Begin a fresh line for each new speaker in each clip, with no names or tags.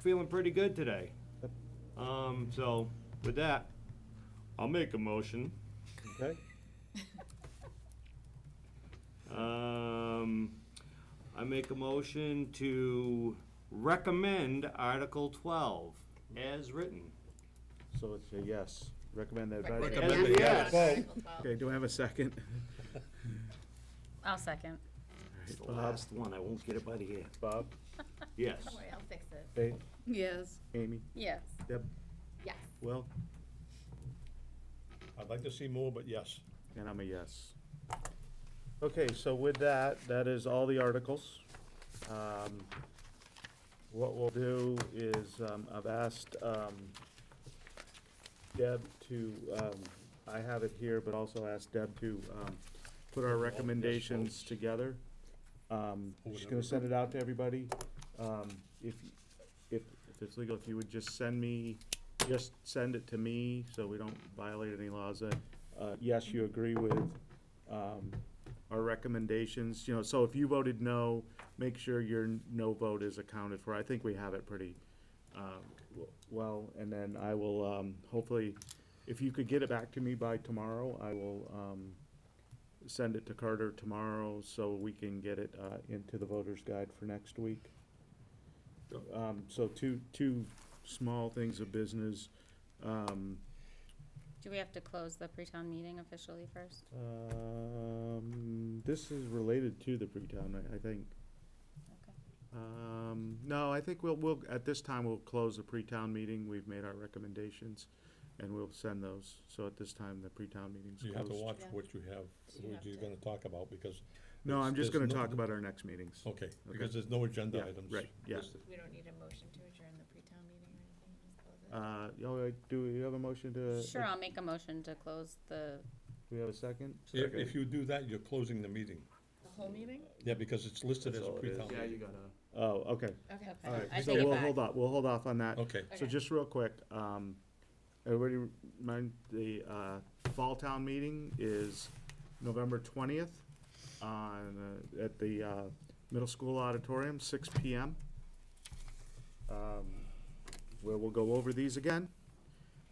feeling pretty good today. Um, so with that, I'll make a motion.
Okay,
Um, I make a motion to recommend Article twelve as written.
so it's a yes. Recommend that
Recommend
advisory.
Recommend it, yes.
Vote.
Article 12.
Okay, do I have a second?
I'll second.
It's the last one, I won't get it by the end.
Bob,
Yes.
Don't worry, I'll fix it.
Dave,
Yes.
Amy,
Yes.
Deb,
Yes.
Will,
I'd like to see more, but yes.
and I'm a yes. Okay, so with that, that is all the articles. Um, What we'll do is, um, I've asked um, Deb to, um, I have it here, but also asked Deb to um, put our recommendations together. Um, She's gonna send it out to everybody. Um, If, if, if it's legal, if you would just send me, just send it to me, so we don't violate any laws. Uh, uh, Yes, you agree with um, our recommendations, you know, so if you voted no, make sure your no vote is accounted for. I think we have it pretty uh, w- well, and then I will um, hopefully, if you could get it back to me by tomorrow, I will um, send it to Carter tomorrow so we can get it uh, into the voter's guide for next week. Um, So two, two small things of business. Um,
Do we have to close the pre-town meeting officially first?
um, This is related to the pre-town, I- I think.
Okay.
Um, no, I think we'll, we'll, at this time, we'll close the pre-town meeting. We've made our recommendations, and we'll send those. So at this time, the pre-town meeting's
You have to
closed.
watch
Yeah.
what you have,
You
what
have
you're
to.
gonna talk about, because,
No, I'm just gonna
There's no-
talk about our next meetings.
okay, because there's no agenda
Yeah,
items.
right, yeah.
listed.
We don't need a motion to adjourn the pre-town meeting or anything, just close it.
Uh, you know, like, do you have a motion to?
Sure, I'll make a motion to close the,
Do we have a second?
If, if you do that, you're closing the meeting.
The whole meeting?
Yeah, because it's listed
That's
as a
all it is.
pre-town
Yeah,
meeting.
Oh, okay.
Okay.
Okay.
All right,
I
so
take it
we'll
back.
hold off, we'll hold off on that.
Okay,
So
Okay.
just real quick, um, everybody remind, the, uh, Fall Town Meeting is November twentieth on, uh, at the, uh, Middle School Auditorium, six P M. Um, where we'll go over these again.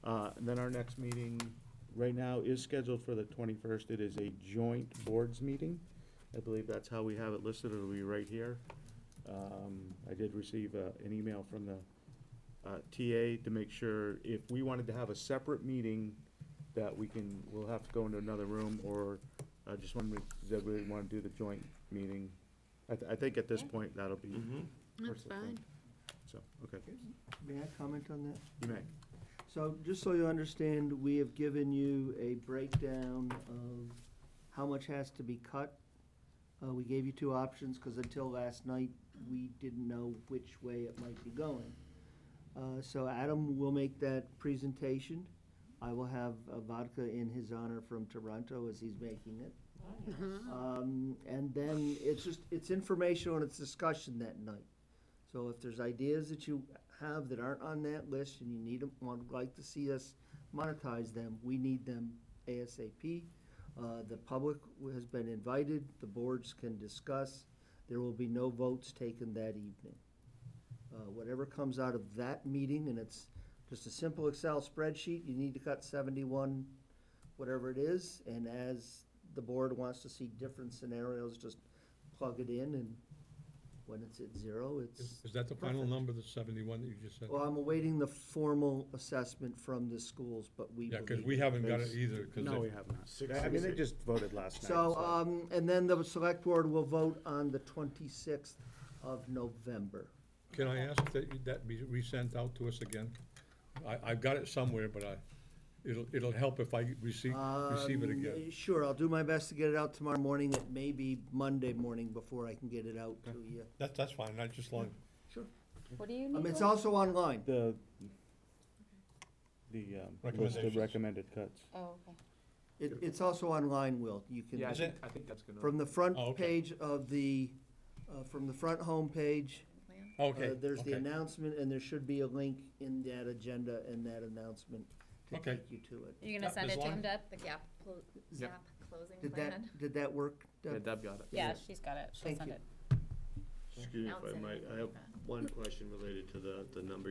Uh, and then our next meeting, right now, is scheduled for the twenty-first. It is a joint boards meeting. I believe that's how we have it listed. It'll be right here. Um, I did receive, uh, an email from the uh, TA to make sure if we wanted to have a separate meeting, that we can, we'll have to go into another room, or I just want to, does everybody want to do the joint meeting? I, th- I think at this
Yeah.
point, that'll be.
Mm-hmm.
That's fine. So, okay,
May I comment on that?
you may.
So, just so you understand, we have given you a breakdown of how much has to be cut. Uh, we gave you two options, because until last night, we didn't know which way it might be going. Uh, so Adam will make that presentation. I will have a vodka in his honor from Toronto as he's making it. Um, and then it's just, it's informational and it's discussion that night. So if there's ideas that you have that aren't on that list and you need them, would like to see us monetize them, we need them ASAP. Uh, the public has been invited, the boards can discuss, there will be no votes taken that evening. Uh, whatever comes out of that meeting, and it's just a simple Excel spreadsheet, you need to cut seventy-one, whatever it is, and as the board wants to see different scenarios, just plug it in, and when it's at zero, it's.
is is that the final
perfect.
number, the seventy-one that you just said?
Well, I'm awaiting the formal assessment from the schools, but we
Yeah,
believe.
because we haven't got it either,
No, we
because
have
Mm-hmm.
not. I mean, they just voted last night.
So, um, and then the select board will vote on the twenty-sixth of November.
can I ask that you- that be resent out to us again? I, I've got it somewhere, but I, it'll, it'll help if I receive, receive it
Um,
again.
Sure, I'll do my best to get it out tomorrow morning. It may be Monday morning before I can get it out to you.
That's, that's fine, I just long,
What do you
Um,
need?
it's
Lou?
also online.
The, the, um, list of
Recommendations.
recommended cuts.
Oh, okay.
It, it's also online, Will. You can.
Is it?
I think that's gonna.
From the front
Oh, okay.
page of the, uh, from the front homepage, uh,
okay,
there's the
okay.
announcement, and there should be a link in that agenda and that announcement to
Okay.
take you to it.
You're gonna
Yeah,
send
as
it to
long-
him, Deb?
The gap, clo-
Yep.
zap closing
Did
plan.
that, did that work? Deb?
Yeah, Deb got it.
Yeah, she's got it. She'll
Thank
send
you.
it.
Excuse me
Announce
if I
it.
might, I have one question related to the, the number